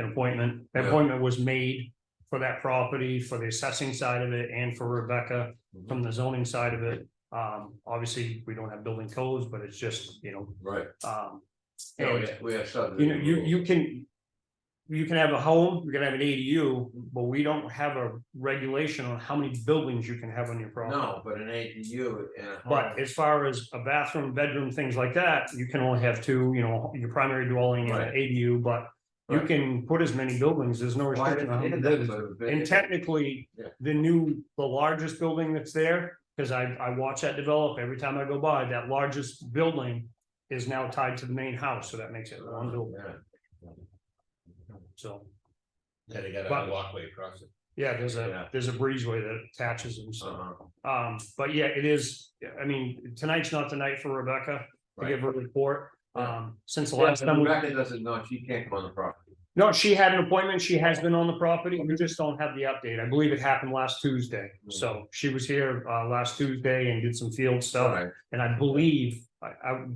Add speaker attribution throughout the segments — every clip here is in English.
Speaker 1: an appointment. That
Speaker 2: Yeah.
Speaker 1: appointment was made for that property, for the assessing side of it and for Rebecca from the zoning side of it. Um, obviously, we don't have building codes, but it's just, you know,
Speaker 2: Right.
Speaker 1: um.
Speaker 2: Oh, Yeah,
Speaker 1: and-
Speaker 2: we have- we have
Speaker 1: you
Speaker 2: subdivision.
Speaker 1: know, you,
Speaker 2: rules.
Speaker 1: you can. You can have a home, you can have an ADU, but we don't have a regulation on how many buildings you can have on your property.
Speaker 2: No, but an ADU and a home,
Speaker 1: But as far as a bathroom, bedroom, things like that, you can only have two, you know, your primary dwelling and an
Speaker 2: Right.
Speaker 1: ADU, but. You
Speaker 2: Right.
Speaker 1: can put as many buildings, there's no
Speaker 2: why
Speaker 1: restriction on how
Speaker 2: did
Speaker 1: many
Speaker 2: it
Speaker 1: buildings.
Speaker 2: end up with a
Speaker 1: And
Speaker 2: big-
Speaker 1: technically,
Speaker 2: Yeah.
Speaker 1: the new, the largest building that's there, because I, I watch that develop every time I go by, that largest building. Is now tied to the main house, so that makes it one building,
Speaker 2: Yeah.
Speaker 1: so,
Speaker 3: Yeah, they got
Speaker 1: But-
Speaker 3: a walkway across it.
Speaker 1: yeah, there's
Speaker 2: Yeah.
Speaker 1: a, there's a breezeway that attaches them, so.
Speaker 2: Uh-huh.
Speaker 1: Um, but yeah, it is, I mean, tonight's not the night for Rebecca to give her report. Um, since the
Speaker 2: Yeah,
Speaker 1: last
Speaker 2: but
Speaker 1: time, we-
Speaker 2: Rebecca doesn't know, she can't come on the property.
Speaker 1: no, she had an appointment, she has been on the property, we just don't have the update. I believe it happened last Tuesday. So she was here, uh, last Tuesday and did some field stuff.
Speaker 2: Right.
Speaker 1: And I believe, I, I,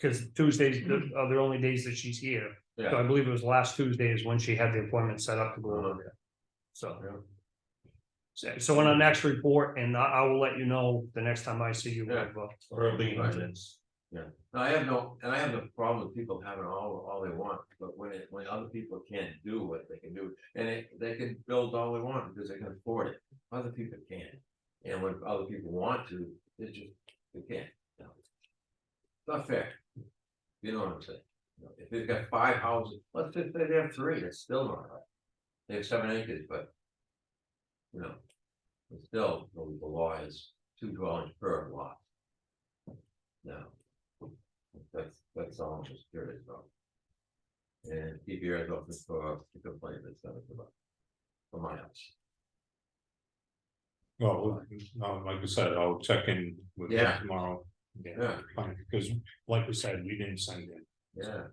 Speaker 1: because Tuesdays the- are the only days that she's here. So
Speaker 2: Yeah.
Speaker 1: I believe it was last Tuesday is when she had the appointment set up to go over there. So.
Speaker 2: Yeah.
Speaker 1: So- So on our next report, and I, I will let you know the next time I see you.
Speaker 2: Yeah.
Speaker 1: Well,
Speaker 3: Or a lien
Speaker 2: Right.
Speaker 3: on it.
Speaker 2: No, I have no, and I have no problem with people having all, all they want, but when it, when other people can't do what they can do, and they, they can build all they want because they can afford it. Other people can't, and when other people want to, they just, they can't. you know. Not fair. You know what I'm saying? You know, If they've got five houses, let's just say they have three, it's still not right. They have seven acres, but. You know. It's still, the the law is two dwellings per lot. Now. That's, that's all I'm just curious about. And keep your eyes open for the complaint that's coming about. From my house.
Speaker 4: Well, no, like I said, I'll check in with you
Speaker 2: Yeah.
Speaker 4: tomorrow.
Speaker 2: Yeah.
Speaker 4: Fine, because like we said, we didn't send
Speaker 2: Yeah,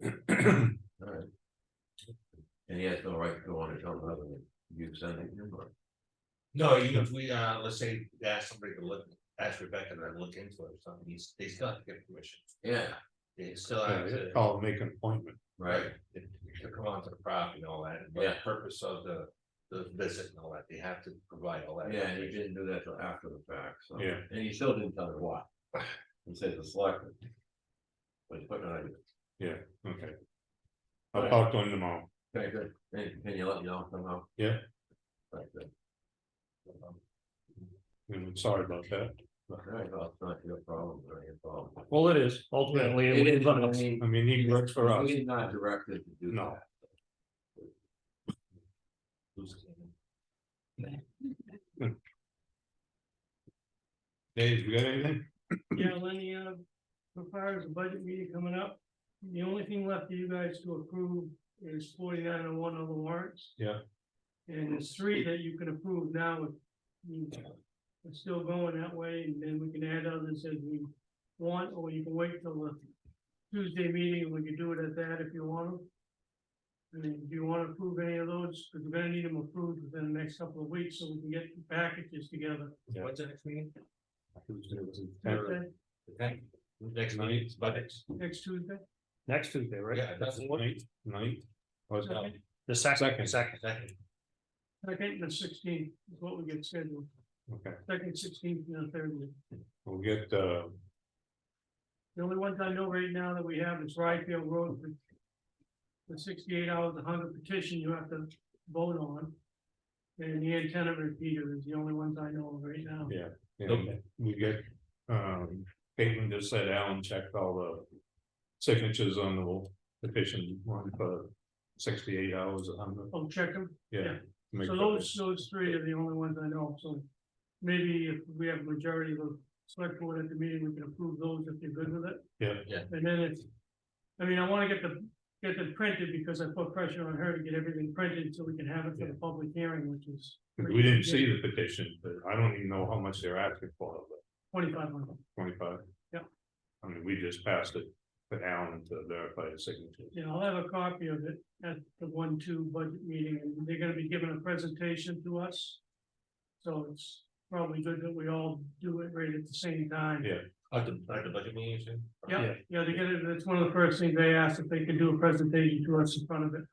Speaker 4: in.
Speaker 2: alright. And he has no right to go on his own other than you sending him or.
Speaker 3: No, even if we, uh, let's say, we ask somebody to look, ask Rebecca to look into it or something, he's, they still have to get permission.
Speaker 2: Yeah,
Speaker 3: They still have to,
Speaker 4: Yeah, Oh. I'll make an appointment.
Speaker 2: right,
Speaker 3: to come onto the property and all that, and what the
Speaker 2: Yeah.
Speaker 3: purpose of the, the visit and all that, they have to provide all that.
Speaker 2: yeah, and he
Speaker 3: information.
Speaker 2: didn't do that till after the fact, so.
Speaker 4: Yeah.
Speaker 2: And he still didn't tell her why. He said the selectmen. But he's putting it on you.
Speaker 4: Okay. I'll talk to him tomorrow.
Speaker 2: Okay, good, and can you let me know somehow?
Speaker 4: Yeah.
Speaker 2: Right, good.
Speaker 4: I'm sorry about that.
Speaker 2: Alright, well, it's not your problem, or your problem.
Speaker 1: Well, it is ultimately.
Speaker 2: It is,
Speaker 1: but
Speaker 2: I mean,
Speaker 4: I mean, he works for us.
Speaker 2: We're not directed to do
Speaker 4: No.
Speaker 2: that.
Speaker 4: Dave, you got anything?
Speaker 5: Yeah, Lenny, uh, so far as the budget meeting coming up, the only thing left for you guys to approve is forty-nine and one of the warrants.
Speaker 4: Yeah.
Speaker 5: And there's three that you can approve now, if you are still going that way, and then we can add others as we want, or you can wait till the Tuesday meeting, and we can do it at that if you want. them. I mean, do you want to approve any of those, because we're gonna need them approved within the next couple of weeks, so we can get the packages together.
Speaker 4: Yeah.
Speaker 3: What's the next meeting?
Speaker 4: Next
Speaker 5: Okay,
Speaker 3: Okay, next meeting, is budgets.
Speaker 5: Next Tuesday?
Speaker 1: Next Tuesday, right?
Speaker 3: Yeah, that's what,
Speaker 4: Ninth, ninth. Or is that-
Speaker 5: Okay.
Speaker 1: The second,
Speaker 4: Second.
Speaker 1: second.
Speaker 3: second,
Speaker 5: Second and sixteenth is what we get scheduled,
Speaker 4: Okay,
Speaker 5: second, sixteenth, and third.
Speaker 4: we'll get, uh,
Speaker 5: The only ones I know right now that we have is Ryfield Road. with- The sixty-eight hours, a hundred petition you have to vote on. And the antenna repeater is the only ones I know of right now.
Speaker 4: and we get, um, Caitlin just said Alan checked all the signatures on the petition one for sixty-eight hours, a hundred.
Speaker 5: I'll Oh, check them,
Speaker 4: Yeah. make
Speaker 5: so
Speaker 4: sure
Speaker 5: those, those three are the only ones I know, so. Maybe if we have a majority of the select board at the meeting, we can approve those if they're good with it.
Speaker 4: Yeah.
Speaker 3: Yeah.
Speaker 5: And then it's, I mean, I wanna get the, get them printed because I put pressure on her to get everything printed so we can have it for the public hearing, which is.
Speaker 4: We didn't see the petition, but I don't even know how much they're asking for, but
Speaker 5: Twenty-five hundred,
Speaker 4: twenty-five.
Speaker 5: Yeah.
Speaker 4: I mean, we just passed it to Alan to verify the signature.
Speaker 5: Yeah, I'll have a copy of it at the one-two budget meeting, and they're gonna be giving a presentation to us. So it's probably good that we all do it right at the same time.
Speaker 4: Yeah. At the, at the budget meeting, you said?
Speaker 5: Yeah, yeah, they get it, it's one of the first things they ask if they can do a presentation to us in front of it.